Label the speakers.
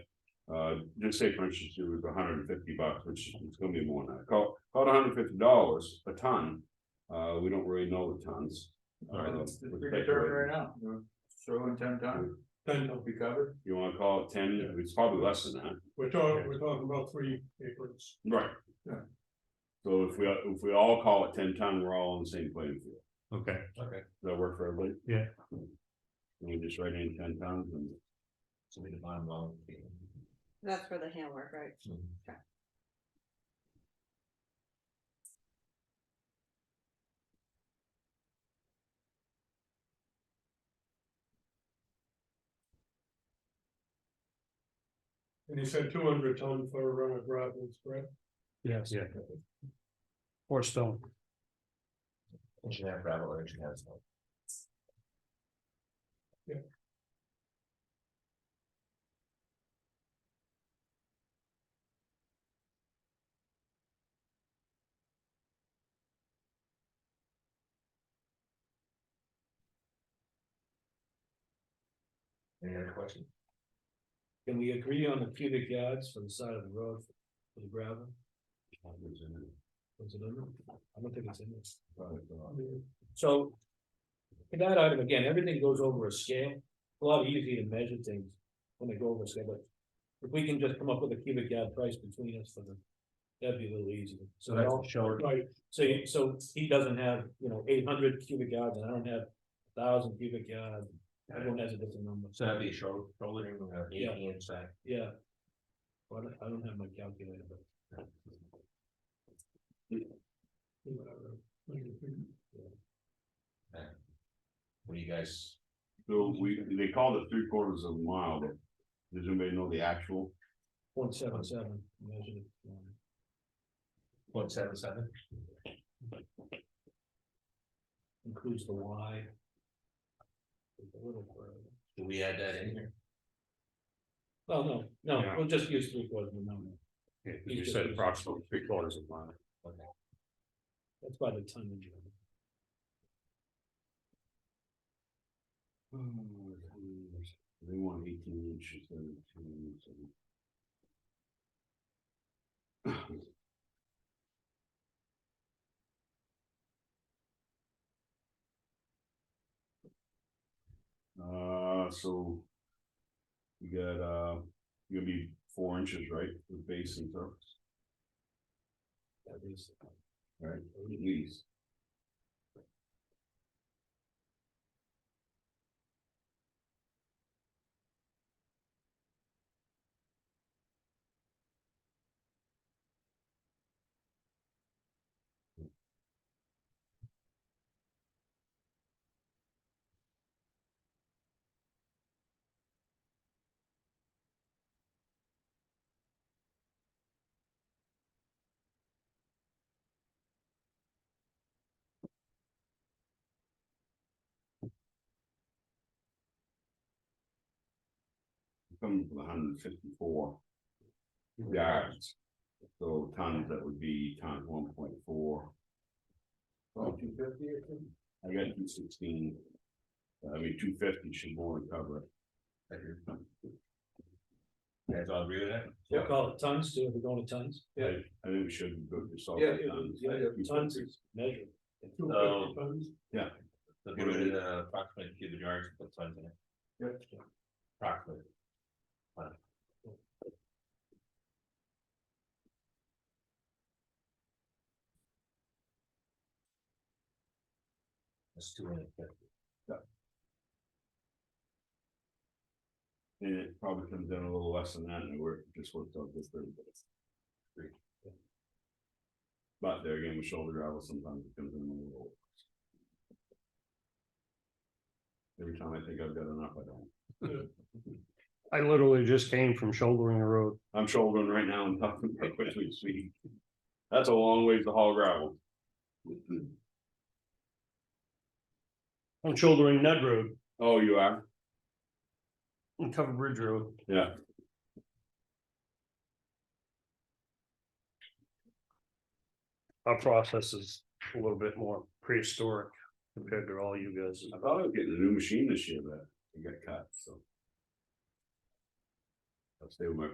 Speaker 1: Uh, just say for instance, it was hundred and fifty bucks, which is gonna be more than that, call, call it hundred fifty dollars a ton. Uh, we don't really know the tons.
Speaker 2: Alright,
Speaker 1: Uh,
Speaker 2: let's, let's
Speaker 1: with
Speaker 2: bring it to
Speaker 1: speculation.
Speaker 2: her right now, We'll throw in ten times. Ten will be covered.
Speaker 1: You wanna call it ten, it's probably less than that.
Speaker 3: We're talking, we're talking about three acres.
Speaker 1: Right.
Speaker 2: Yeah.
Speaker 1: So if we, if we all call it ten ton, we're all on the same playing field.
Speaker 4: Okay,
Speaker 2: Okay.
Speaker 1: Does that work for everybody?
Speaker 4: Yeah.
Speaker 1: Can We just write in ten tons and.
Speaker 2: So we define well.
Speaker 5: That's for the handwork, right?
Speaker 3: And you said two hundred ton for uh, gravels, correct?
Speaker 6: Yes,
Speaker 4: yeah,
Speaker 6: or stone.
Speaker 2: Engineer gravel or engineer stone. Any other question?
Speaker 6: Can we agree on the cubic yards for the side of the road for- for the gravel? Was it in there? I don't think it's in this. So. in that item, again, everything goes over a scale, a lot easier to measure things when they go over a scale, but. If we can just come up with a cubic yard price between us for the, that'd be a little easier.
Speaker 4: so that's
Speaker 6: all-
Speaker 4: a short,
Speaker 3: Right,
Speaker 6: So you, so he doesn't have, you know, eight hundred cubic yards and I don't have thousand cubic yards. Everyone has a different number.
Speaker 2: So that'd be a shoulder, shoulder, uh,
Speaker 6: Yeah.
Speaker 2: eighty inch back.
Speaker 6: Yeah. Well, I don't- I don't have my calculator, but.
Speaker 2: What do you guys?
Speaker 1: So we, they called it three quarters of a mile, but does anybody know the actual?
Speaker 6: Point seven seven. measured it.
Speaker 2: Point seven seven?
Speaker 6: Includes the Y. It's a little further.
Speaker 2: Do we add that in here?
Speaker 6: Well, no, no,
Speaker 4: Yeah.
Speaker 6: we'll just use three quarters of a mile.
Speaker 4: yeah, you said approximately three quarters of a mile.
Speaker 6: That's by the tonnage.
Speaker 1: Oh, They want eighteen inches. and two inches. Uh, so. You got, uh, you'll be four inches, right, with base and surface,
Speaker 6: That is,
Speaker 1: right, at least. coming from hundred and fifty-four yards. So tons, that would be times one point four. two fifty, I think? I got two sixteen. I mean, two fifty should more than cover it.
Speaker 2: You guys all agree with that?
Speaker 6: we'll call it tons too, if we're going to tons.
Speaker 1: I think we should go to solid
Speaker 3: Yeah, yeah,
Speaker 1: tons.
Speaker 3: yeah, yeah.
Speaker 6: Tons is measured.
Speaker 3: two fifty tons.
Speaker 2: So get rid of the approximate cubic yards, and put tons in it. Approximate. That's two hundred fifty.
Speaker 1: And it probably comes down a little less than that, and we're just worked out this thirty minutes. But there again, with shoulder gravel, sometimes it comes in a little. Every time I think I've got enough, I don't.
Speaker 7: I literally just came from shouldering a road.
Speaker 1: I'm shouldering right now and talking about which we speak. That's a long ways to haul gravel.
Speaker 7: I'm shouldering Ned Road
Speaker 1: Oh, you are?
Speaker 7: and Cover Bridge Road.
Speaker 1: Yeah.
Speaker 7: Our process is a little bit more prehistoric compared to all you guys.
Speaker 1: I thought I was getting a new machine this year, but it got cut, so. I'll stay with my